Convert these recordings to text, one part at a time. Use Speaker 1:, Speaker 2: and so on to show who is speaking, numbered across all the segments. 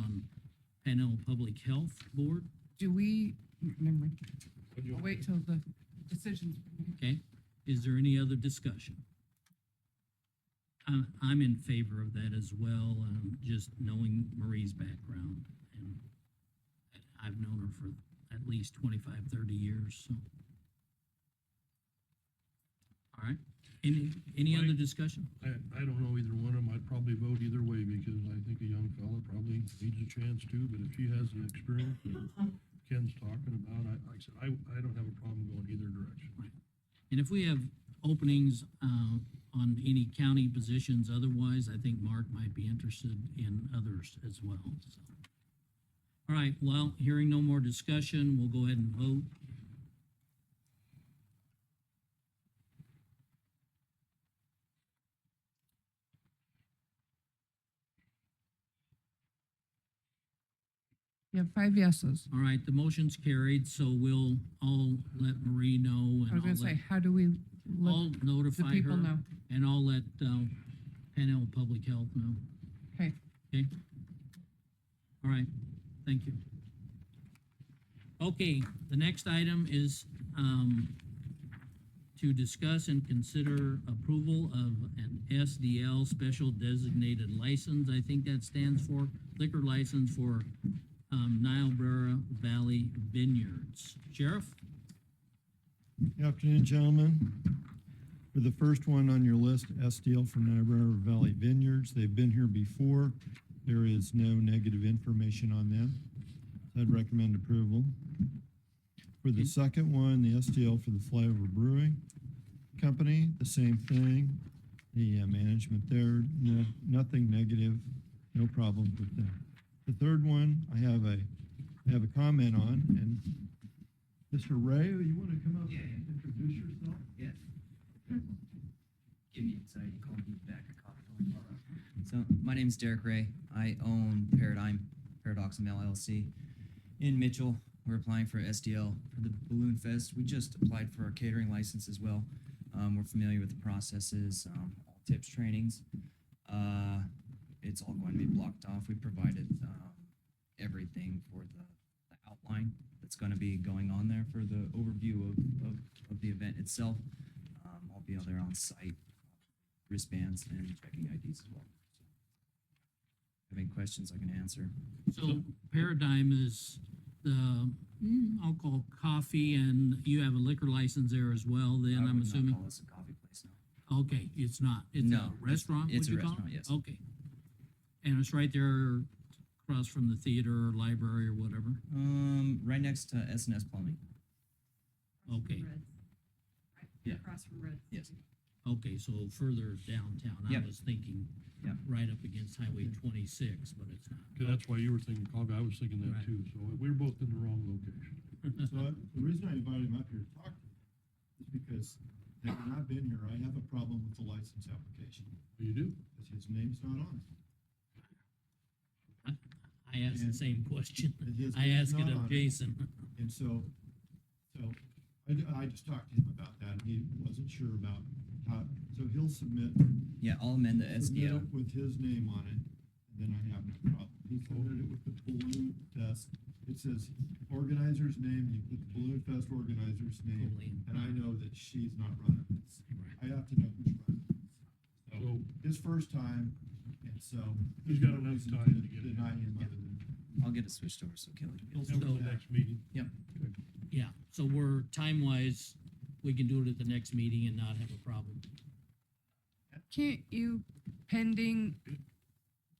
Speaker 1: um, Panel Public Health Board,
Speaker 2: Do we, never mind. I'll wait till the decisions.
Speaker 1: okay? Is there any other discussion? I'm, I'm in favor of that as well, um, just knowing Marie's background. and I've known her for at least 25, 30 years, so. All right, any, any other
Speaker 3: Mike?
Speaker 1: discussion?
Speaker 3: I, I don't know either one of them. I'd probably vote either way because I think a young fella probably needs a chance too, but if she has the experience that Ken's talking about, I, like I said, I, I don't have a problem going either direction.
Speaker 1: And if we have openings uh, on any county positions otherwise, I think Mark might be interested in others as well, so. All right, well, hearing no more discussion, we'll go ahead and vote.
Speaker 2: You have five yeses.
Speaker 1: All right, the motion's carried, so we'll all let Marie know
Speaker 2: I
Speaker 1: and
Speaker 2: was gonna
Speaker 1: I'll let,
Speaker 2: say, how do we let
Speaker 1: I'll
Speaker 2: the
Speaker 1: notify
Speaker 2: people
Speaker 1: her.
Speaker 2: know?
Speaker 1: And I'll let uh, Panhandle Public Health know,
Speaker 2: Okay,
Speaker 1: okay? All right, thank you. Okay, the next item is um, to discuss and consider approval of an SDL Special Designated License. I think that stands for liquor license for um, Niobrara Valley Vineyards. Sheriff?
Speaker 4: Afternoon, gentlemen. For the first one on your list, SDL from Niobrara Valley Vineyards. They've been here before. There is no negative information on them. I'd recommend approval. For the second one, the SDL for the Flyover Brewing Company, the same thing. The uh, management there, no, nothing negative, no problem with them. The third one, I have a, I have a comment on, and Mr. Ray, you want to come up and introduce yourself?
Speaker 5: Yes. Give me sorry, you called me back a cop. So my name is Derek Ray. I own Paradigm Paradox Mail LLC in Mitchell. We're applying for SDL for the Balloon Fest. We just applied for our catering license as well. Um, we're familiar with the processes, um, all tips, trainings. Uh, it's all going to be blocked off. We provided um, everything for the, the outline that's going to be going on there for the overview of, of, of the event itself. Um, I'll be out there on site, wristbands and checking IDs as well. Have any questions I can answer?
Speaker 1: So Paradigm is the, mm, I'll call coffee, and you have a liquor license there as well,
Speaker 5: I
Speaker 1: then
Speaker 5: would
Speaker 1: I'm
Speaker 5: not
Speaker 1: assuming?
Speaker 5: call this a coffee place now.
Speaker 1: Okay, it's not, it's a
Speaker 5: No, it's-
Speaker 1: restaurant, would
Speaker 5: it's a
Speaker 1: you call
Speaker 5: restaurant,
Speaker 1: it?
Speaker 5: yes.
Speaker 1: Okay. And it's right there across from the theater or library or whatever?
Speaker 5: Um, right next to S and S Plumbing.
Speaker 1: Okay,
Speaker 5: Yeah.
Speaker 6: Across from Red.
Speaker 5: Yes.
Speaker 1: okay, so further downtown, I
Speaker 5: Yep.
Speaker 1: was thinking
Speaker 5: Yep.
Speaker 1: right up against Highway twenty-six, but it's not.
Speaker 3: 'Cause that's why you were thinking coffee. I was thinking that
Speaker 1: Right.
Speaker 3: too. So we're both in the wrong location.
Speaker 4: So I- the reason I invited him up here to talk to you is because they've not been here. I have a problem with the license application
Speaker 3: You do?
Speaker 4: because his name's not on it.
Speaker 1: I asked the
Speaker 4: And-
Speaker 1: same question,
Speaker 4: And his
Speaker 1: I
Speaker 4: name's
Speaker 1: asked it
Speaker 4: not
Speaker 1: of
Speaker 4: on
Speaker 1: Jason.
Speaker 4: And so, so I, d- I just talked to him about that and he wasn't sure about how, so he'll submit.
Speaker 5: Yeah, I'll amend the
Speaker 4: submit
Speaker 5: SDL.
Speaker 4: it With his name on it, then I have no problem. He submitted it with the balloon fest. It says organizer's name, you put the balloon fest organizer's name.
Speaker 1: Totally.
Speaker 4: And I know that she's not running this.
Speaker 1: Right.
Speaker 4: I have to know who's running. this. So
Speaker 3: So
Speaker 4: his first time, and so.
Speaker 3: He's got enough
Speaker 4: there's no
Speaker 3: time to
Speaker 4: reason
Speaker 3: get it.
Speaker 4: Deny him other than.
Speaker 5: I'll get it switched over so Kelly. can-
Speaker 3: that
Speaker 4: he'll
Speaker 3: was
Speaker 4: submit
Speaker 3: the
Speaker 4: that.
Speaker 3: next meeting.
Speaker 1: Yeah, so we're, time-wise, we can do it at the next meeting and not have a problem.
Speaker 2: can't you pending
Speaker 4: You could-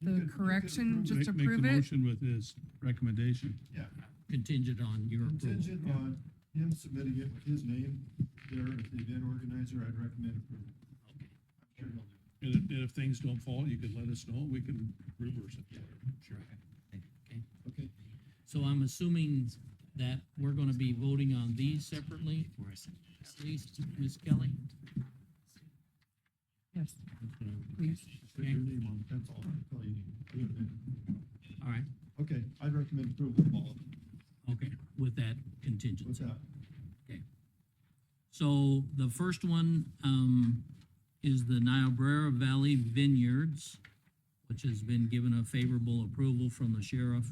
Speaker 2: the
Speaker 4: you could
Speaker 2: correction,
Speaker 4: approve
Speaker 2: just
Speaker 7: Make- make the
Speaker 2: approve it?
Speaker 7: Motion with this recommendation.
Speaker 4: Yeah,
Speaker 1: contingent on your approval.
Speaker 4: contingent on him submitting it with his name there as the event organizer, I'd recommend approval.
Speaker 1: Okay.
Speaker 4: I'm sure he'll do it.
Speaker 3: And if, and if things don't fall, you could let us know. We can reverse it.
Speaker 4: Okay,
Speaker 1: So I'm assuming that we're gonna be voting on these separately,
Speaker 5: Before I send it.
Speaker 1: at least, Ms. Kelly?
Speaker 2: Yes, please.
Speaker 4: put your name on it, that's all, that's all you need. Wait a minute.
Speaker 1: All right,
Speaker 4: Okay, I'd recommend approval of all of them.
Speaker 1: okay, with that contingency.
Speaker 4: What's that?
Speaker 1: So the first one, um, is the Niobrara Valley Vineyards, which has been given a favorable approval from the sheriff